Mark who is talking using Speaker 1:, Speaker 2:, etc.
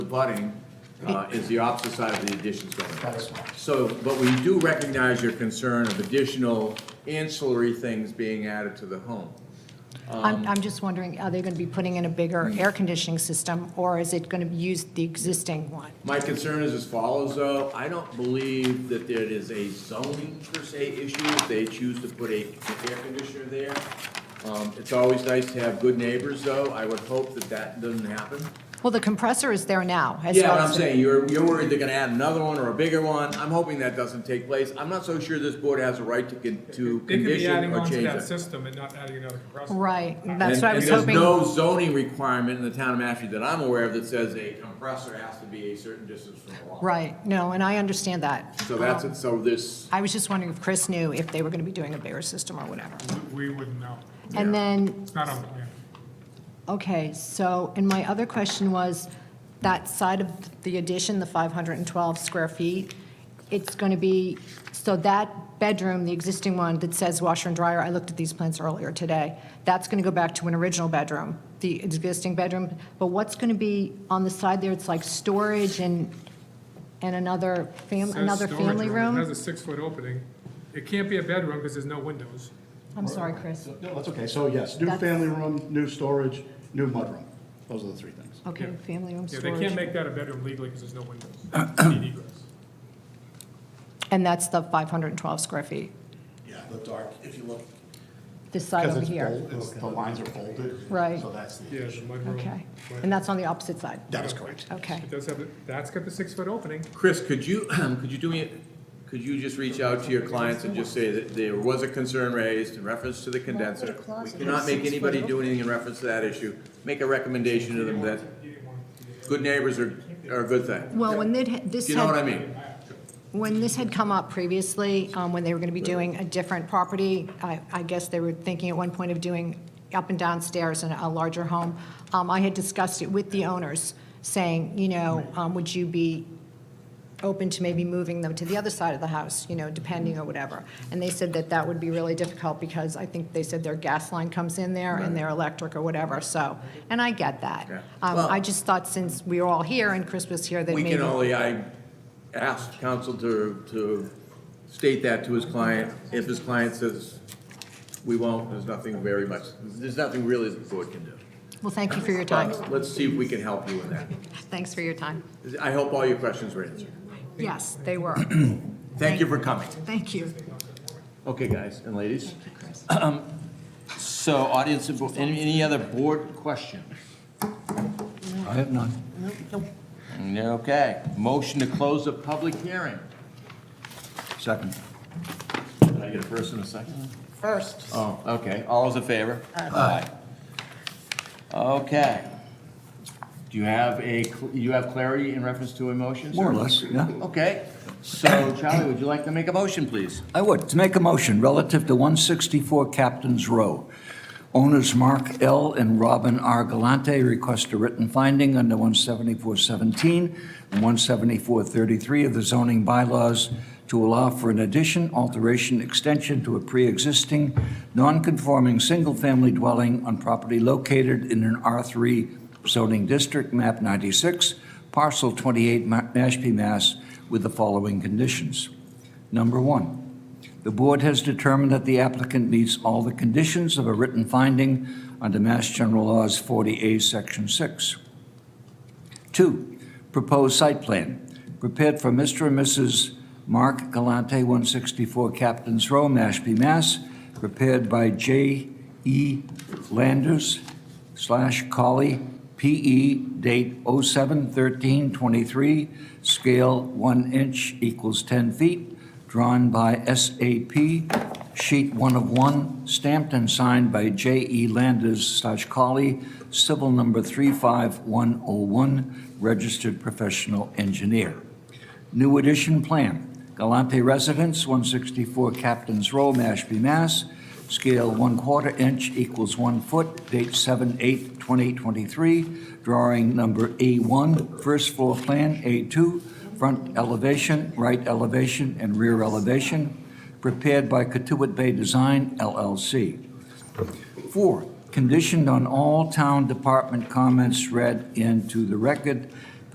Speaker 1: abutting uh, is the opposite side of the additions going up.
Speaker 2: That's right.
Speaker 1: So, but we do recognize your concern of additional ancillary things being added to the home. Um,
Speaker 3: I'm, I'm just wondering, are they going to be putting in a bigger air conditioning system, or is it going to use the existing one?
Speaker 1: My concern is as follows, though. I don't believe that there is a zoning per se issue if they choose to put a an air conditioner there. Um, It's always nice to have good neighbors, though. I would hope that that doesn't happen.
Speaker 3: Well, the compressor is there now. as
Speaker 1: Yeah,
Speaker 3: well
Speaker 1: but I'm
Speaker 3: as the-
Speaker 1: saying, you're, you're worried they're gonna add another one or a bigger one. I'm hoping that doesn't take place. I'm not so sure this board has a right to, con- to
Speaker 4: They could be
Speaker 1: condition
Speaker 4: adding
Speaker 1: or
Speaker 4: on to
Speaker 1: change
Speaker 4: that
Speaker 1: it.
Speaker 4: system and not adding another compressor.
Speaker 3: Right,
Speaker 1: And-
Speaker 3: that's what I was
Speaker 1: And
Speaker 3: hoping.
Speaker 1: there's no zoning requirement in the town of Mashpee that I'm aware of that says a compressor has to be a certain distance from the wall.
Speaker 3: Right, no, and I understand that. Um,
Speaker 1: So that's, it. so this,
Speaker 3: I was just wondering if Chris knew if they were going to be doing a bigger system or whatever.
Speaker 4: We wouldn't know.
Speaker 3: And then,
Speaker 4: It's not on the plan.
Speaker 3: okay, so, and my other question was, that side of the addition, the 512 square feet, it's going to be, so that bedroom, the existing one that says washer and dryer, I looked at these plans earlier today, that's going to go back to an original bedroom, the existing bedroom, but what's going to be on the side there, it's like storage and, and another
Speaker 4: It
Speaker 3: fam,
Speaker 4: says
Speaker 3: another
Speaker 4: storage
Speaker 3: family
Speaker 4: It
Speaker 3: room?
Speaker 4: has a six-foot opening. It can't be a bedroom because there's no windows.
Speaker 3: I'm sorry, Chris.
Speaker 2: No, that's okay. So yes, new
Speaker 3: That's-
Speaker 2: family room, new storage, new mudroom. Those are the three things.
Speaker 3: Okay,
Speaker 4: Yeah.
Speaker 3: family room
Speaker 4: Yeah,
Speaker 3: storage.
Speaker 4: they can't make that a bedroom legally because there's no windows. Need egress.
Speaker 3: And that's the 512 square feet,
Speaker 2: Yeah, the dark, if you look.
Speaker 3: this side over here.
Speaker 2: The lines are folded.
Speaker 3: Right.
Speaker 2: So that's the.
Speaker 4: Yeah, the mudroom.
Speaker 3: Okay, and that's on the opposite side?
Speaker 2: That is correct.
Speaker 3: Okay,
Speaker 4: It does have, a- that's got the six-foot opening.
Speaker 1: Chris, could you, could you do me, could you just reach out to your clients and just say that there was a concern raised in reference to the condenser? We cannot make anybody do anything in reference to that issue. Make a recommendation to them that good neighbors are, are a good thing.
Speaker 3: well, when they'd ha- this
Speaker 1: Do you know what I
Speaker 3: had,
Speaker 1: mean?
Speaker 3: when this had come up previously, um, when they were going to be doing a different property, I I guess they were thinking at one point of doing up and downstairs in a larger home, um, I had discussed it with the owners, saying, you know, um, would you be open to maybe moving them to the other side of the house, you know, depending or whatever. And they said that that would be really difficult because I think they said their gas line comes in there and their electric or whatever, so, and I get that.
Speaker 1: Yeah.
Speaker 3: Um,
Speaker 1: Well-
Speaker 3: I just thought since we were all here and Chris was here, that
Speaker 1: We
Speaker 3: maybe.
Speaker 1: can only, I asked counsel to, to state that to his client. If his client says, we won't, there's nothing very much, there's nothing really that the board can do.
Speaker 3: Well, thank you for your time.
Speaker 1: But Let's see if we can help you in that.
Speaker 3: Thanks for your time.
Speaker 1: I hope all your questions were answered.
Speaker 3: Yes, they were.
Speaker 1: Thank you for coming.
Speaker 3: Thank you.
Speaker 1: Okay, guys and ladies. Um,
Speaker 3: Chris.
Speaker 1: So audience, any, any other board question?
Speaker 5: I have none.
Speaker 1: Okay, motion to close the public hearing.
Speaker 5: Second.
Speaker 1: Did I get a first and a second?
Speaker 3: First.
Speaker 1: Oh, okay, all those in favor? Aye. Okay. Do you have a, cl- you have clarity in reference to emotions?
Speaker 5: More or less, yeah.
Speaker 1: Okay, so Charlie, would you like to make a motion, please?
Speaker 5: I would, to make a motion relative to 164 Captain's Row. Owners Mark L. and Robin R. Galante request a written finding under 17417 and 17433 of the zoning bylaws to allow for an addition, alteration, extension to a pre-existing, non-conforming, single-family dwelling on property located in an R3 zoning district, map 96, parcel 28, Ma- Mashpee, Mass, with the following conditions. Number one, the board has determined that the applicant meets all the conditions of a written finding under Mass General Laws 40A, Section 6. Two, proposed site plan, prepared for Mr. and Mrs. Mark Galante, 164 Captain's Row, Mashpee, Mass, prepared by J. E. Landers slash Colley, P.E., date 07/13/23, scale 1 inch equals 10 feet, drawn by SAP, sheet 1 of 1, stamped and signed by J.E. Landers slash Colley, civil number 35101, registered professional engineer. New addition plan, Galante Residence, 164 Captain's Row, Mashpee, Mass. Scale 1 quarter inch equals 1 foot, date 7/8/2023. Drawing number A1, first floor plan, A2, front elevation, right elevation, and rear elevation, prepared by Katuitt Bay Design LLC. Four, conditioned on all town department comments read into the record